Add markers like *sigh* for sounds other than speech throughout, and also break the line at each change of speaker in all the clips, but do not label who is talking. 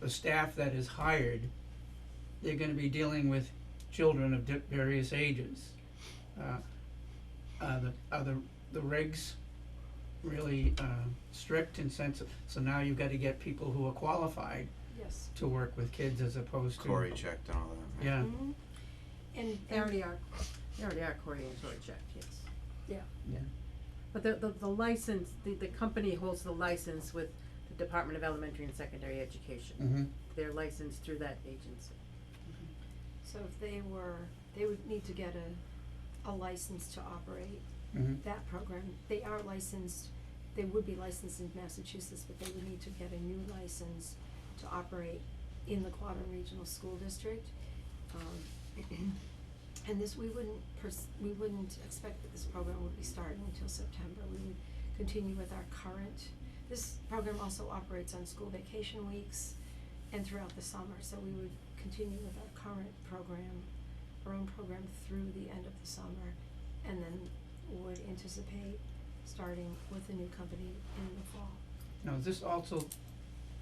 the staff that is hired, they're gonna be dealing with children of di- various ages. Uh, are the, are the, the regs really, uh, strict and sense, so now you've gotta get people who are qualified
Yes.
to work with kids as opposed to.
Corey checked and all that.
Yeah,
Mhm. And,
They
and,
already are, they already are Cory and George checked, yes.
Yeah.
Yeah.
But the, the, the license, the, the company holds the license with the Department of Elementary and Secondary Education.
mhm.
They're licensed through that agency. *laughs*
so if they were, they would need to get a, a license to operate
Mhm.
that program. They are licensed, they would be licensed in Massachusetts, but they would need to get a new license to operate in the Quavon Regional School District. Um, *clears throat* and this, we wouldn't pers- we wouldn't expect that this program would be starting until September. We would continue with our current, this program also operates on school vacation weeks and throughout the summer, so we would continue with our current program, our own program through the end of the summer, and then would anticipate starting with a new company in the fall.
Now, is this also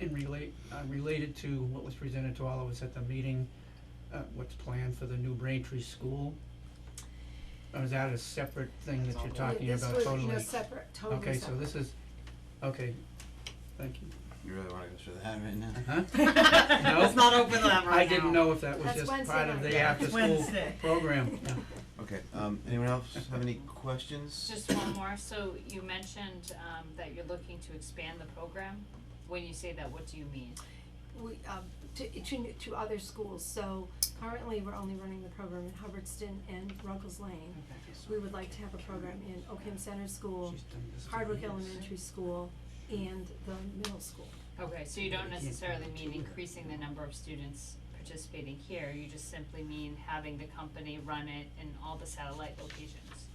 in relate, uh, related to what was presented to all of us at the meeting, uh, what's planned for the new Braintree school? Or is that a separate thing that
That's all
you're
one.
talking about
This was,
totally?
you know, separate, totally separate.
Okay, so this is, okay, thank you.
You really wanna go through that right now?
Huh?
Let's not open that right
I didn't
now.
know if that was
That's
just
Wednesday
part of
night.
the
Yeah.
after-school
Wednesday.
program, yeah.
Okay, um, anyone else have any questions?
Just one more, so you mentioned, um, that you're looking to expand the program, when you say that, what do you mean?
we, um, to, to, new- to other schools, so currently we're only running the program in Hubbardston and Ruggles Lane. We would like to have a program in Oakham Center School,
She's done this to
Hardwick
me.
Elementary School, and the middle school.
Okay, so you don't necessarily mean increasing the number of students participating here, you just simply mean having the company run it in all the satellite locations.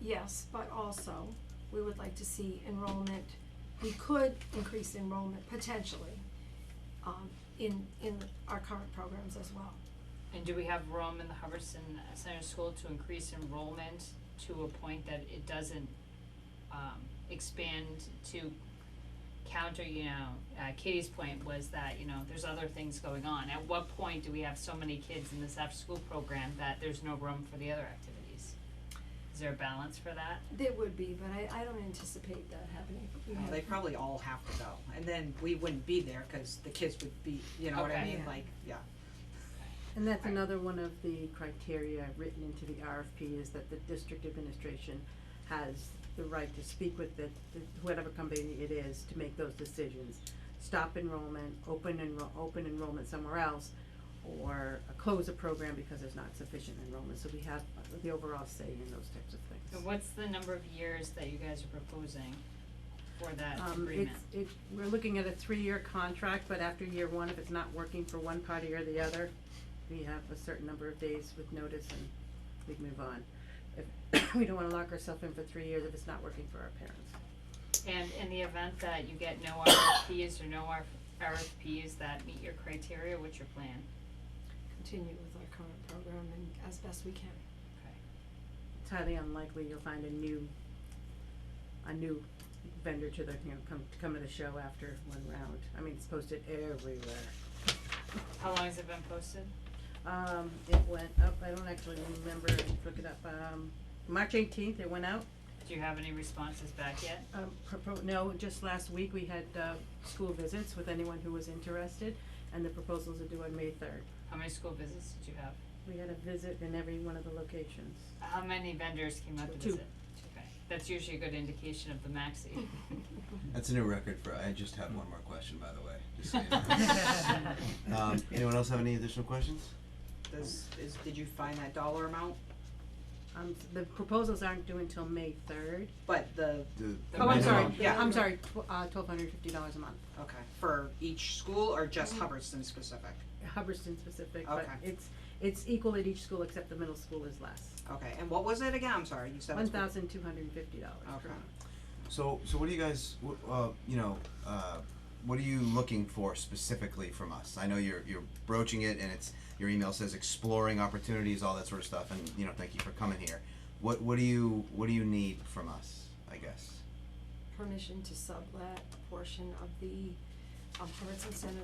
Yes, but also, we would like to see enrollment, we could increase enrollment potentially, um, in, in our current programs as well.
And do we have room in the Hubbardston Center School to increase enrollment to a point that it doesn't, um, expand to counter, you know, uh, Katie's point was that, you know, there's other things going on. At what point do we have so many kids in this after-school program that there's no room for the other activities? Is there a balance for that?
There would be, but I, I don't anticipate that happening. We
Well,
have-
they probably all have to go, and then we wouldn't be there, cause the kids would be, you know what I
Okay.
mean,
Yeah.
like, yeah.
And that's another one of the criteria written into the RFP is that the district administration has the right to speak with the, the- whatever company it is to make those decisions. Stop enrollment, open enroll, open enrollment somewhere else, or close a program because there's not sufficient enrollment, so we have the overall say in those types of things.
And what's the number of years that you guys are proposing for that
Um,
agreement?
it's, it, we're looking at a three-year contract, but after year one, if it's not working for one party or the other, we have a certain number of days with notice and we move on. If, *coughs* we don't wanna lock ourselves in for three years if it's not working for our parents.
And in the event that you get no RFPs or no R- RFPs that meet your criteria, what's your plan?
continue with our current program and as best we can.
It's highly unlikely you'll find a new, a new vendor to the, you know, come, to come to the show after one round. I mean, it's posted everywhere.
How long has it been posted?
Um, it went up, I don't actually remember, look it up, um, March eighteenth, it went out.
Do you have any responses back yet?
Um, propo- no, just last week we had, uh, school visits with anyone who was interested, and the proposals are due on May third.
How many school visits did you have?
We had a visit in every one of the locations.
How many vendors came out to
Two.
visit? Okay, that's usually a good indication of the max that you.
That's a new record for, I just have one more question, by the way, just *laughs* so you
*laughs*
*laughs*
know. Um, anyone else have any additional questions?
Does, is, did you find that dollar amount?
Um, the proposals aren't due until May third.
But the,
The-
Oh, I'm sorry,
minimum-
Yeah.
I'm sorry, tw- uh, twelve hundred fifty dollars a month.
okay, for each school or just
Mm-hmm.
Hubbardston specific?
Hubbardston specific, but
Okay.
it's, it's equal at each school except the middle school is less.
Okay, and what was it again? I'm sorry, you said
One
it's.
thousand two hundred and fifty dollars per
Okay.
month.
So, so what do you guys, wh- uh, you know, uh, what are you looking for specifically from us? I know you're you're broaching it, and it's your email says exploring opportunities, all that sort of stuff, and you know, thank you for coming here. What what do you what do you need from us? I guess.
Permission to sublet a portion of the um, Hubbardston Center